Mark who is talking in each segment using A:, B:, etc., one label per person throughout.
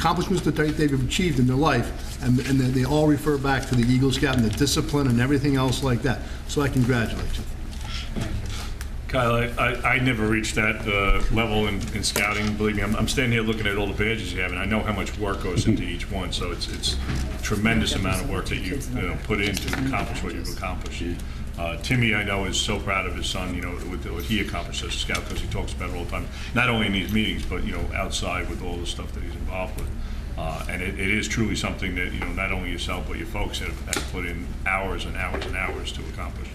A: accomplishments that they- they've achieved in their life, and and they they all refer back to the Eagle Scout and the discipline and everything else like that. So I congratulate you.
B: Kyle, I, I, I never reached that uh, level in, in scouting. Believe me, I'm, I'm standing here looking at all the badges you have, and I know how much work goes into each one. So it's it's tremendous amount of work that you, you know, put in to accomplish what you've accomplished. Uh, Timmy, I know, is so proud of his son. You know, with what he accomplished as a scout, because he talks about it all the time. Not only in these meetings, but you know, outside with all the stuff that he's involved with. Uh, and it, it is truly something that you know, not only yourself but your folks have, have put in hours and hours and hours to accomplish.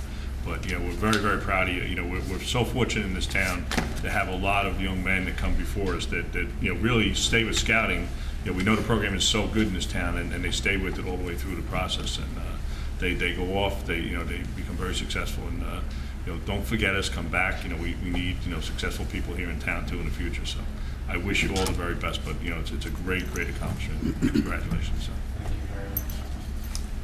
B: But, you know, we're very, very proud of you. You know, we're, we're so fortunate in this town to have a lot of young men that come before us that, that, you know, really stay with scouting. You know, we know the program is so good in this town and, and they stay with it all the way through the process. And, uh, they, they go off, they, you know, they become very successful and, uh, you know, don't forget us, come back. You know, we, we need, you know, successful people here in town too in the future. So I wish you all the very best, but, you know, it's, it's a great, great accomplishment. Congratulations, so.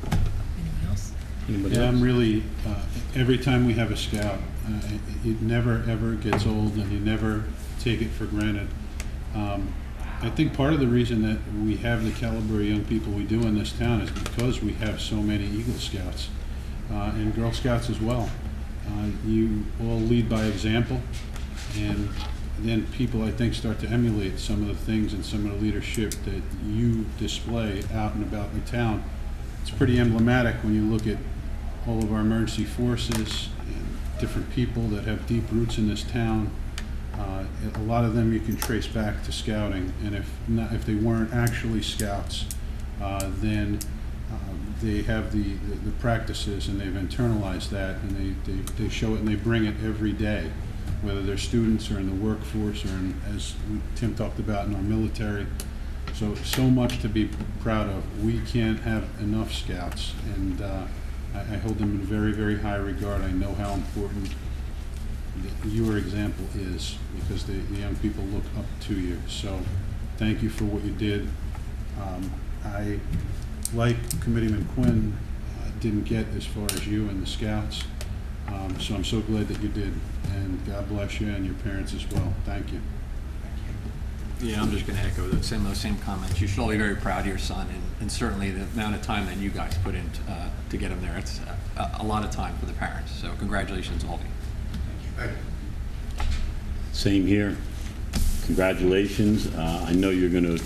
C: Anyone else?
D: Yeah, I'm really, uh, every time we have a scout, uh, it- it never, ever gets old, and you never take it for granted. Um, I think part of the reason that we have the caliber of young people we do in this town is because we have so many Eagle Scouts uh, and Girl Scouts as well. Uh, You all lead by example, and then people, I think, start to emulate some of the things and some of the leadership that you display out and about in the town. It's pretty emblematic when you look at all of our emergency forces and different people that have deep roots in this town. Uh, A lot of them you can trace back to scouting, and if not, if they weren't actually scouts, uh, then um, they have the, the- the practices and they've internalized that, and they, they, they show it and they bring it every day, whether they're students or in the workforce or in, as Tim talked about, in our military. So, so much to be proud of. We can't have enough scouts, and uh, I, I hold them in very, very high regard. I know how important th- your example is, because the, the young people look up to you. So, thank you for what you did. Um, I, like Committeeman Quinn, uh, didn't get as far as you and the scouts, Um, so I'm so glad that you did, and God bless you and your parents as well. Thank you.
E: Yeah, I'm just going to echo the same, those same comments. You should all be very proud of your son, and, and certainly the amount of time that you guys put in uh, to get him there. It's uh, a, a lot of time for the parents. So congratulations, all of you.
F: Same here. Congratulations. Uh, I know you're going to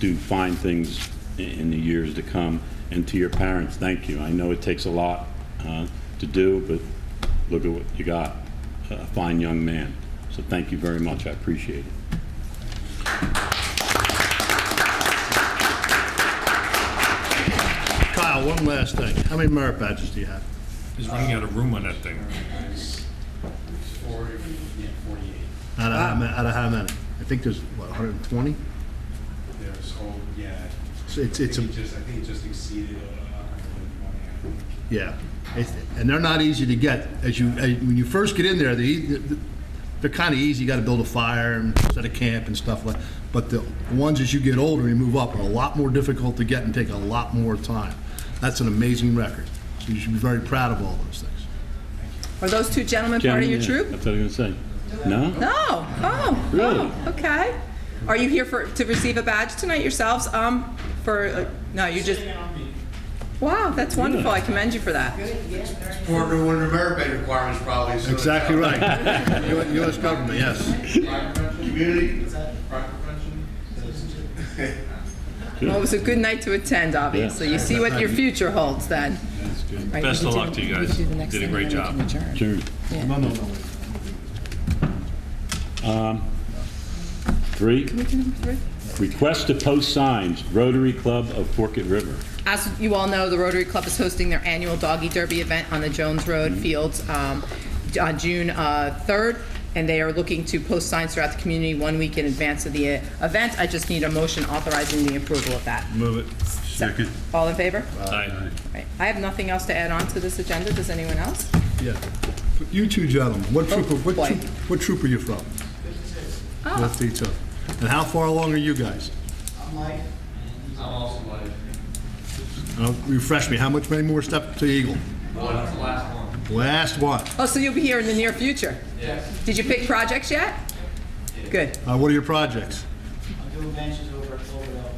F: do fine things i- in the years to come. And to your parents, thank you. I know it takes a lot uh, to do, but look at what you got, a fine young man. So thank you very much. I appreciate it.
A: Kyle, one last thing. How many merit badges do you have?
B: He's running out of room on that thing.
G: Forty-eight.
A: Out of how ma- out of how many? I think there's, what, 120?
G: There's, oh, yeah.
A: So it's-
G: I
A: it's
G: think
A: a-
G: it just- I think it just exceeded, uh, a hundred and twenty, I think.
A: Yeah, It's- and they're not easy to get. As you, as- when you first get in there, they, they're kind of easy, you gotta build a fire and set a camp and stuff like, but the ones as you get older and you move up are a lot more difficult to get and take a lot more time. That's an amazing record, so you should be very proud of all those things.
C: Are those two gentlemen part of your troop?
F: That's what I was going to say. No?
C: No. Oh.
F: Really?
C: Oh, okay. Are you here for to receive a badge tonight yourselves? Um, for uh, no, you just. Wow, that's wonderful. I commend you for that.
H: Or the one of the merit pay requirements probably. so-
A: Exactly right. U- US government, yes.
H: Crime prevention, Community, crime prevention.
C: Well, it was a good night to attend. Obviously, you see what your future holds then. Right,
B: Best
C: we
B: of
C: could
B: luck to
C: do-
B: you
C: we could
B: guys.
C: do the next
B: Did a
C: thing,
B: great
C: and then we can adjourn.
F: Sure.
A: No, no, no.
F: Three,
C: We can number three.
F: request to post signs, Rotary Club of Forkett River.
C: As you all know, the Rotary Club is hosting their annual Doggy Derby event on the Jones Road Fields um, j- on June uh, 3rd, and they are looking to post signs throughout the community one week in advance of the uh, event. I just need a motion authorizing the approval of that.
B: Move it.
D: Second.
C: All in favor?
B: Uh. Aye.
C: Right. I have nothing else to add on to this agenda. Does anyone else?
A: Yeah. You two gentlemen, what troop, are- what
C: boy.
A: troop, what troop are you from? Fifty-two. And how far along are you guys?
H: I'm like, I'm also like,
A: Uh, Refresh me, how much, many more steps to Eagle?
H: what's the last one?
A: Last one.
C: Oh, so you'll be here in the near future?
H: Yes.
C: Did you pick projects yet? Good.
A: Uh, What are your projeccs?
I: I'm doing benches over at Cloverdale uh,